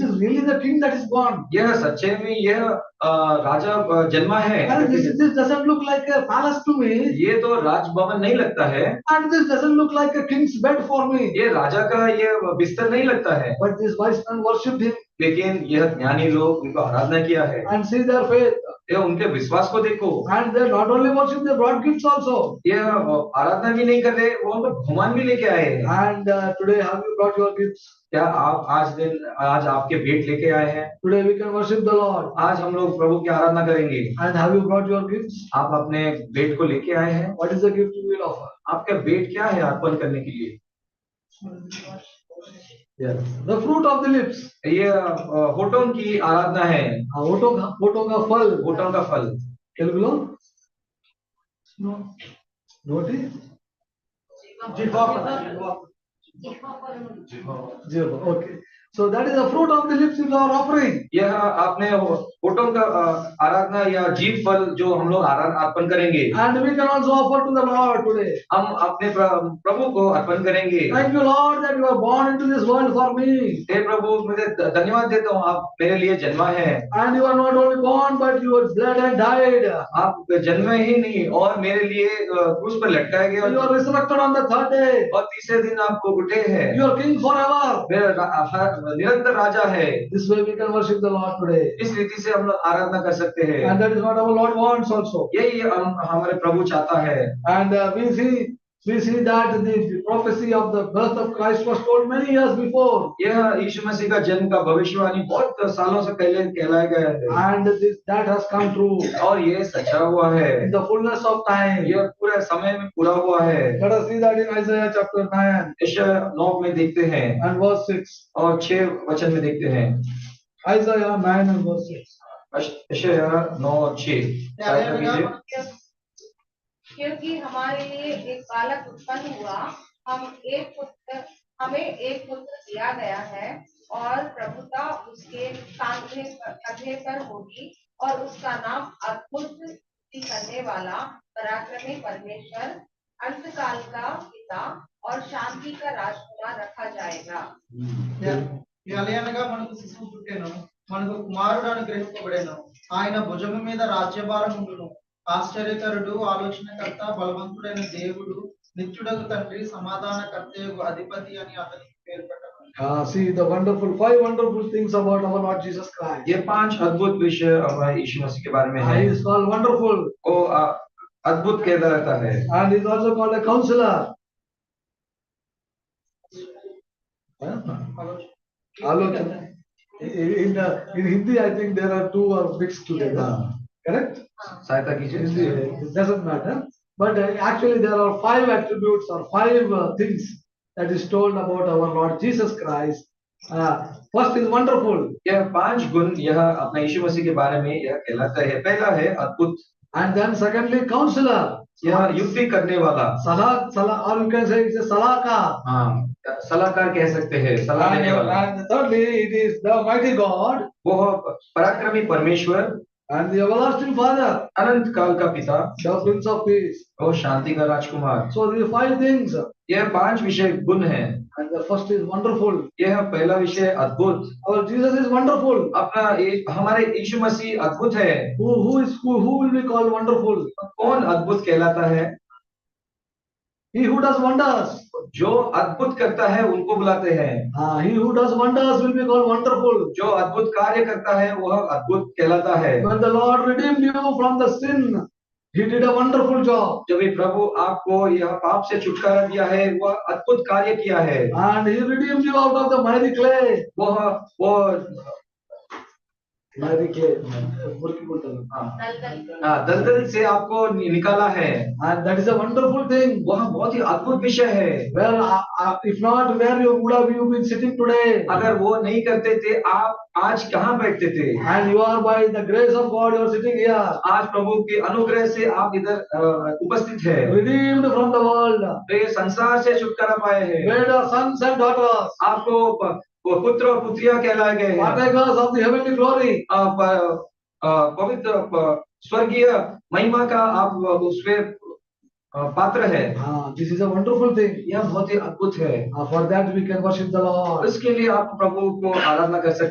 is a king that is born. यह सच्चे में यह अ, राजा अ, जन्मा है And this, this doesn't look like a palace to me. ये तो राजभवन नहीं लगता है And this doesn't look like a king's bed for me. ये राजा का ये बिस्तर नहीं लगता है But this wise man worshipped him लेकिन यह ज्ञानी लोग उनको आराधना किया है and see their faith. यह उनके विश्वास को देखो And they not only worship, they brought gifts also. यह आराधना भी नहीं कर रहे वो उनको भगवान भी लेके आए हैं And uh, today, have you brought your gifts? क्या आप आज दिन आज आपके भेंट लेके आए हैं Today we can worship the Lord. आज हम लोग प्रभु की आराधना करेंगे And have you brought your gifts? आप अपने भेंट को लेके आए हैं What is the gift you will offer? आपका भेंट क्या है अर्पण करने के लिए Yes. The fruit of the lips. ये अ, होठों की आराधना है हाँ, होठों का होठों का फल होठों का फल తెలుగులో నోటి జీవాపద జీవ okay so that is the fruit of the lips is our offering यह आपने हो- होठों का अ, आराधना या जीव फल जो हम लोग आरा- अर्पण करेंगे and we can also offer to the lord today हम अपने प्र- प्रभु को अर्पण करेंगे thank you lord that you are born into this world for me हे प्रभु मुझे ध- धन्यवाद देता हूँ आप मेरे लिए जन्मा है and you are not only born but you are blood and died आप जन्मे ही नहीं और मेरे लिए अ, क्रूस पर लटकाया गया you are resurrected on the third day और तीसरे दिन आपको उठे हैं you are king forever मेरा रा- हर- निरंतर राजा है this way we can worship the lord today इस रीति से हम लोग आराधना कर सकते हैं and that is what our lord wants also यही हम हमारे प्रभु चाहता है And uh, we see, we see that the prophecy of the birth of Christ was told many years before. यह यीशु मसीह का जन्म का भविष्यवाणी बहुत सालों से पहले कहलाया गया है And this, that has come true और ये सचा हुआ है in the fullness of time. यह पूरा समय में पूरा हुआ है Let us see that in Isaiah chapter 9 यशया नौ में देखते हैं and verse 6. और छह वचन में देखते हैं Isaiah 9 and verse 6. यशया नौ और छह शायद कर लीजिए। क्योंकि हमारे लिए एक बालक उत्पन्न हुआ हम एक पुत्र हमें एक पुत्र दिया गया है और प्रभुता उसके कांधे पर कंधे पर होगी और उसका नाम अद्भुत स्तुति करने वाला पराक्रमी परमेश्वर अंतकाल का पिता और शांति का राजकुमार रखा जाएगा ఈ అలయనగా మనకు శిశువు పుట్టెను మనకు కుమారుడు అనుగ్రహింపబడెను ఆయన భుజము మీద రాజ్యభారం ఉండును ఆశ్చర్యకరుడు ఆలోచనకర్త బలవంతుడైన దేవుడు నిత్యుడకు తండ్రి సమాధానకర్తయగు అధిపతి అని అతనికి పేరు పెట్టను Uh, see the wonderful, five wonderful things about our Lord Jesus Christ. ये पांच अद्भुत विषय हमारे यीशु मसीह के बारे में Uh, है he is called wonderful को अ, अद्भुत कहता रहता है and he is also called a counselor. Huh? Alochana. In, uh, in Hindi, I think there are two are mixed together, correct? हाँ। सहायता कीजिए uh, It doesn't matter, but uh, actually there are five attributes or five uh, things that is told about our Lord Jesus Christ. Uh, First is wonderful, यह पांच गुण यह अपना यीशु मसीह के बारे में यह कहलाता है पहला है अद्भुत and then secondly counselor. यह युक्ति करने वाला Salah, salah, or you can say it's a salaka. हाँ सलाहकार कह सकते हैं सलाह And uh, देने वाला and thirdly, it is the mighty God वो पराक्रमी परमेश्वर and the everlasting Father, अनंत काल का पिता the Prince of Peace. और शांति का राजकुमार So these five things, यह पांच विषय गुण है and the first is wonderful. यह पहला विषय अद्भुत Our Jesus is wonderful. अपना ये- हमारे यीशु मसीह अद्भुत है Who, who is, who, who will be called wonderful? कौन अद्भुत कहलाता है He who does wonders. जो अद्भुत करता है उनको बुलाते हैं Ah, he who does wonders will be called wonderful. जो अद्भुत कार्य करता है वह अद्भुत कहलाता है When the Lord redeemed you from the sin, he did a wonderful job. जब ये प्रभु आपको यह पाप से छुटकारा दिया है वह अद्भुत कार्य किया है And he redeemed you out of the miry clay. वह वो Miry clay. मुर्की बोलते हैं। हाँ, दलदल हाँ, दलदल से आपको नि- निकाला है हाँ, And that is a wonderful thing. वह बहुत ही अद्भुत विषय है Well, uh, uh, if not, where you would have you been sitting today? अगर वो नहीं करते थे आप आज कहाँ बैठते थे And you are by the grace of God, you are sitting here, आज प्रभु के अनुग्रह से आप इधर अ, उपस्थित है redeemed from the world, तो ये संसार से छुटकारा पाए हैं made our sons and daughters, आपको प- प- पुत्र और पुत्रिया कहलाए गए हैं partakers of the heavenly glory. अ, प- अ, पवित्र प- स्वर्गीय महिमा का आप उसपे अ, पात्र है Ah, this is a wonderful thing. यह बहुत ही अद्भुत है Ah, for that we can worship the Lord. इसके लिए आप प्रभु को आराधना कर सकते